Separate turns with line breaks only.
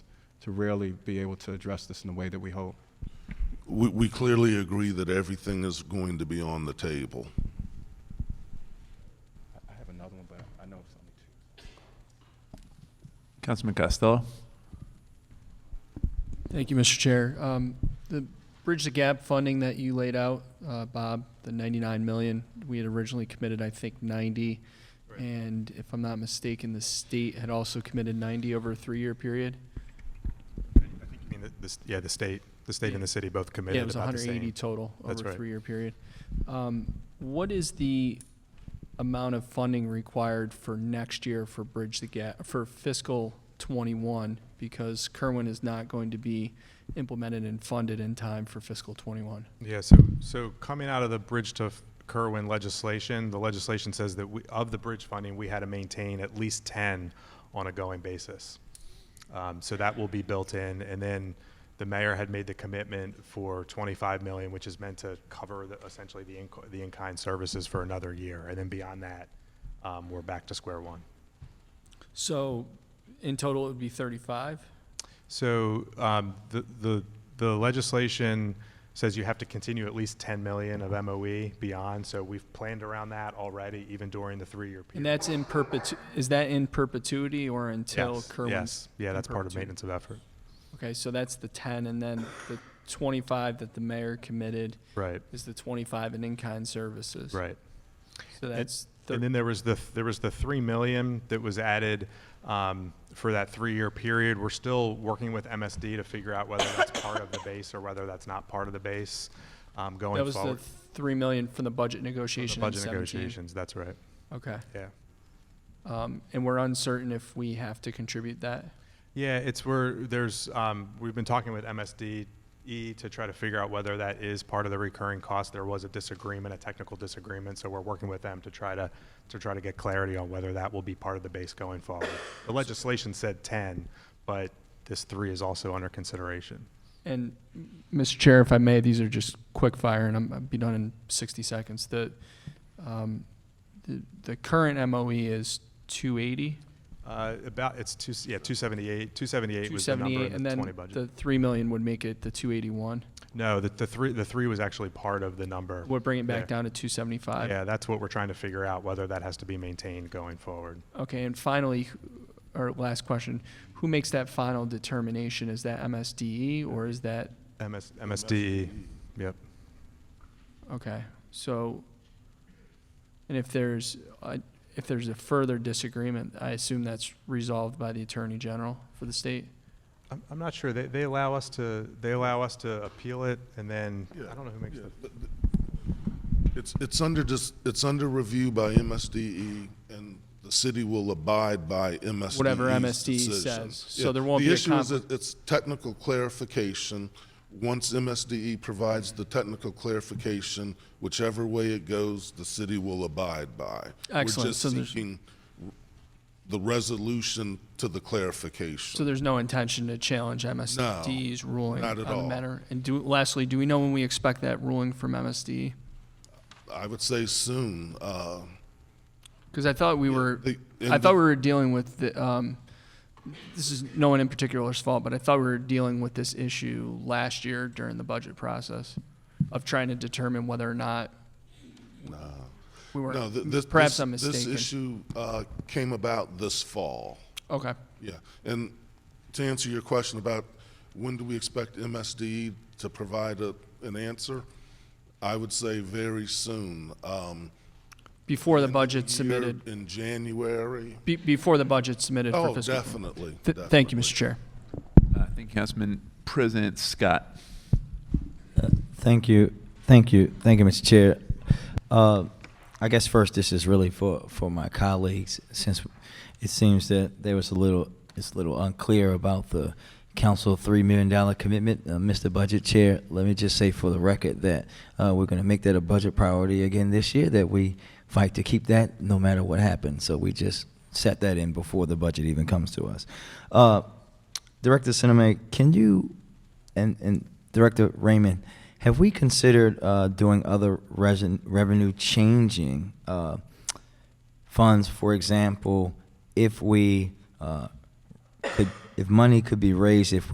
to really be able to address this in the way that we hope.
We, we clearly agree that everything is going to be on the table.
I have another one, but I know it's only two.
Councilman Costello.
Thank you, Mr. Chair. Um, The Bridge the Gap funding that you laid out, uh, Bob, the 99 million, we had originally committed, I think, 90. And if I'm not mistaken, the state had also committed 90 over a three-year period.
I think you mean that this, yeah, the state, the state and the city both
Yeah, it
committed
was
about the same.
180 total
That's
over a
right.
three-year period. Um, What is the amount of funding required for next year for Bridge the Gap, for fiscal '21? Because Kerwin is not going to be implemented and funded in time for fiscal '21.
Yeah, so, so coming out of the Bridge to Kerwin legislation, the legislation says that we, of the bridge funding, we had to maintain at least ten on a going basis. Um, so that will be built in, and then the mayor had made the commitment for twenty-five million, which is meant to cover the, essentially the in, the in-kind services for another year, and then beyond that, um, we're back to square one.
So in total, it would be 35?
So um, the, the, the legislation says you have to continue at least 10 million of MOE beyond, so we've planned around that already, even during the three-year
And
period.
that's in perpetu, is that in perpetuity or until
Yes,
Kerwin's?
Yes, yeah,
in
that's part of
perpetuity?
maintenance of effort.
Okay, so that's the 10, and then the 25 that the mayor committed
Right,
is the 25 in in-kind services.
right.
So that's, thir-
And then there was the, there was the 3 million that was added um, for that three-year period. We're still working with MSD to figure out whether that's part of the base or whether that's not part of the base um, going
that was the
forward. for
3 million from the budget
the
negotiation in
Budget
17.
negotiations, that's right,
Okay,
yeah.
um, and we're uncertain if we have to contribute that?
Yeah, it's where there's, um, we've been talking with MSDE E to try to figure out whether that is part of the recurring cost. There was a disagreement, a technical disagreement, so we're working with them to try to, to try to get clarity on whether that will be part of the base going forward. The legislation said ten, but this three is also under consideration.
And, Mr. Chair, if I may, these are just quick fire, and I'm, I'll be done in 60 seconds. The, um, the, the current MOE is 280,
Uh, about, it's two, yeah, two seventy-eight, two seventy-eight was the number
278,
in
and
the
then
twenty budget.
the 3 million would make it the 281.
No, the, the three, the three was actually part of the number.
Would bring it back
there.
down to 275.
Yeah, that's what we're trying to figure out, whether that has to be maintained going forward.
Okay, and finally, our last question, who makes that final determination? Is that MSDE E or is that,
MS, MSDE, E. yep.
okay, so, and if there's, uh, if there's a further disagreement, I assume that's resolved by the Attorney General for the state?
I'm, I'm not sure. They, they allow us to, they allow us to appeal it and then, I don't know who makes
Yeah,
the,
but the- It's, it's under, dis- it's under review by MSDE, E, and the city will abide by MSDE's
Whatever MSDE
decision.
E says. So
Yeah,
there won't be a
The issue is
conflict.
that it's technical clarification. Once MSDE E provides the technical clarification, whichever way it goes, the city will abide by.
Excellent. So
We're
there's-
just seeking the resolution to the clarification.
So there's no intention to challenge MSD's ruling on
not at
the
all.
matter? And do, lastly, do we know when we expect that ruling from MSD?
I would say soon. uh,
Because I thought we were,
the-
I
and
thought
the-
we were dealing with the, um, this is no one in particular's fault, but I thought we were dealing with this issue last year during the budget process of trying to determine whether or not we were,
No, th- this.
perhaps
this-
I'm mistaken.
This issue uh, came about this fall,
Okay,
yeah. And to answer your question about when do we expect MSDE to provide a- an answer, I would say very soon. Um,
before the budget
year
submitted,
In January.
be, before the budget submitted for
Oh,
fiscal.
definitely.
Th- Thank you,
definitely.
Mr. Chair.
Uh, thank you, Councilman President Scott.
Thank you, thank you, thank you, Mr. Chair. Uh, I guess first, this is really for, for my colleagues, since it seems that there was a little, it's a little unclear about the council $3 million commitment. Uh, Mr. Budget Chair, let me just say for the record that uh, we're going to make that a budget priority again this year, that we fight to keep that no matter what happens. So we just set that in before the budget even comes to us. Uh, Director Cinema, can you and and Director Raymond, have we considered uh, doing other resin, revenue changing uh, funds? For example, if we uh, could, if money could be raised if